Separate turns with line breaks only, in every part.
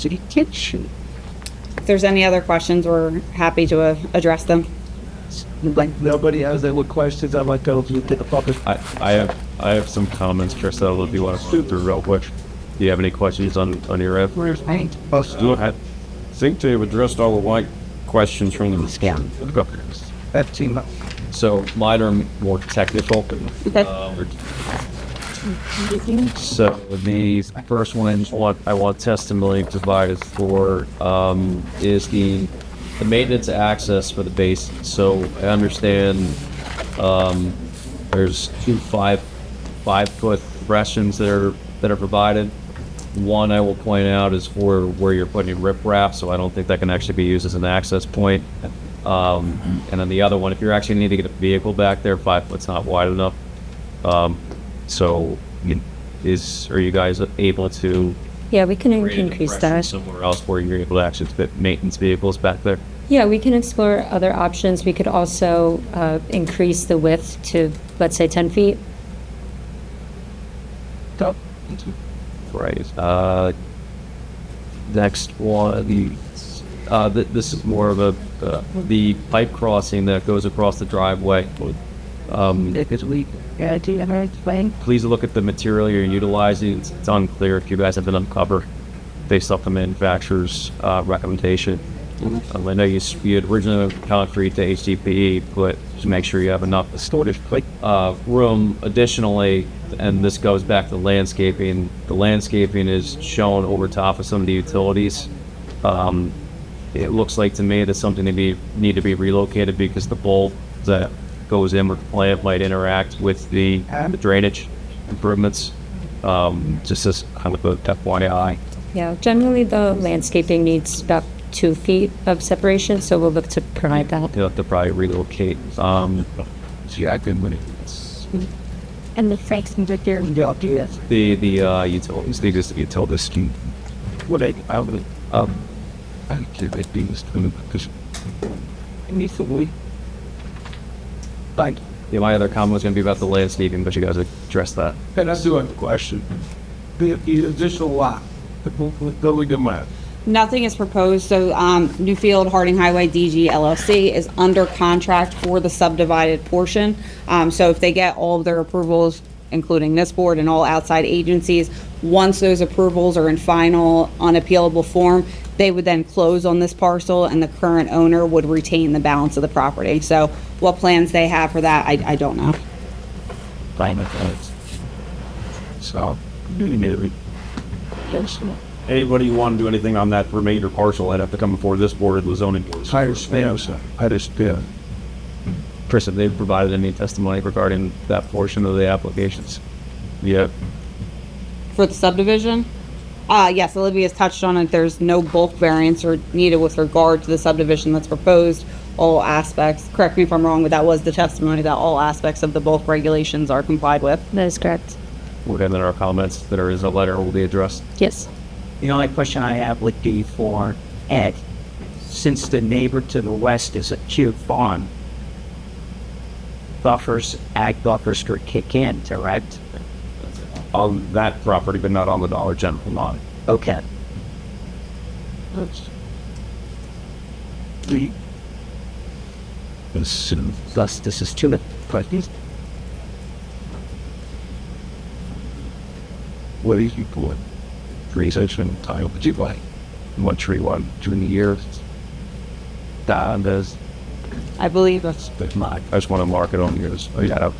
City kitchen.
If there's any other questions, we're happy to uh, address them.
Like,
Nobody has any questions, I'd like to open the public.
I, I have I have some comments, Chriselle, if you want to shoot through real quick. Do you have any questions on, on your end?
right?
Look, I think they've addressed all the white questions from the
Yeah.
Fifteen,
So mine are more technical.
Okay.
Um, So the first one what I want testimony provided for um, is the the maintenance access for the base. So I understand um, there's two five five foot rations that are that are provided. One I will point out is for where you're putting riprap, so I don't think that can actually be used as an access point. Um, and then the other one, if you're actually needing to get a vehicle back there, five foot's not wide enough. Um, so you- is are you guys able to
Yeah, we can
create an
increase
impression
that.
somewhere else where you're able to actually fit maintenance vehicles back there?
Yeah, we can explore other options. We could also uh, increase the width to, let's say, 10 feet.
no.
Right. Uh, next one. Uh, th- this is more of a uh, the pipe crossing that goes across the driveway. Um,
Because we, yeah, do you ever explain?
please look at the material you're utilizing. It's, it's unclear if you guys have been uncovered based off the manufacturer's uh, recommendation. Um, I know you, s- you had originally concrete to HDPE, E, but just make sure you have enough
Storage, like,
uh, room additionally, and this goes back to landscaping. The landscaping is shown over top of some of the utilities. Um, it looks like to me that something to be need to be relocated because the bowl that goes in with the plant might interact with the, the drainage improvements. Um, just as kind of a FYI.
Yeah, generally the landscaping needs about two feet of separation, so we'll look to provide that.
You'll have to probably relocate. Um,
gee, I couldn't win it.
And the Frank's and Victor. Yeah, do this.
the the uh, utilities, the existing utilities.
What I, I would,
Um,
I would give it beans to him, because. Recently. Like,
yeah, my other comment was going to be about the landscaping, but you guys addressed that.
and I do have a question. The, the additional lot, the building in my,
Nothing is proposed, so um, Newfield Harding Highway DG LLC is under contract for the subdivided portion. Um, So if they get all of their approvals, including this board and all outside agencies, once those approvals are in final unappealable form, they would then close on this parcel and the current owner would retain the balance of the property. So what plans they have for that, I I don't know.
climate, so, really, really.
Anybody who want to do anything on that remainder parcel, I'd have to come before this board and the zoning Uh, board.
Higher snails, higher spear.
Chris, have they provided any testimony regarding that portion of the applications? Yeah.
For the subdivision? Uh, yes, Olivia's touched on it. There's no bulk variance or needed with regard to the subdivision that's proposed. All aspects, correct me if I'm wrong, but that was the testimony that all aspects of the bulk regulations are complied with.
That is correct.
Okay, then our comments that are in the letter will be addressed.
Yes.
The only question I have would be for Ed. Since the neighbor to the west is a cute farm, buffers, ag buffers could kick in, correct?
On that property, but not on the Dollar General lot.
Okay.
The. Listen.
Thus, this is two questions.
What are you doing? Research and time. What you like? One tree, one during the year. That is
I believe, let's
the mark. I just want to mark it on yours.
uh,
Oh, yeah.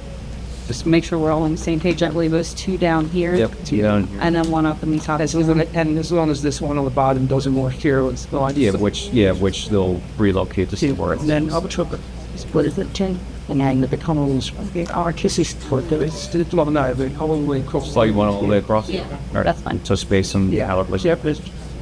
just make sure we're all on the same page. I believe it was two down here.
Yeah,
And then one up in the top.
As long, and as long as this one on the bottom doesn't work here, it's not.
yeah, which, yeah, which they'll relocate to see where it's.
Then I'll trip it.
What is it, Jane? And then the becomes the artist's for
It's the twelve nine, but how long will it cost?
So Oh, you went all the way across? Yeah. All right,
That's fine.
so space and.
Yeah.
Yep.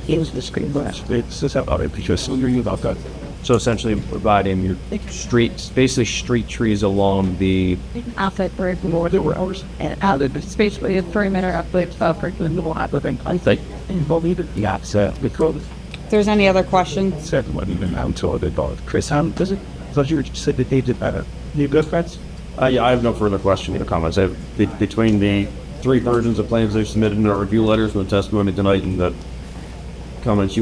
Here's the screen glass.
It's just about it because so you're about that.
So essentially providing your streets, basically street trees along the,
Outside for more
More than hours.
and out of the space for the three minute update for the new applicant. I think involved in the
So uh, because
If there's any other questions,
it's everyone even out to the dog. Chris, how does it? So you said that they did uh, better. You good friends?
Uh, yeah, I have no further questions or comments. I have, be- between the three versions of plans they've submitted in our review letters and the testimony tonight and the comments you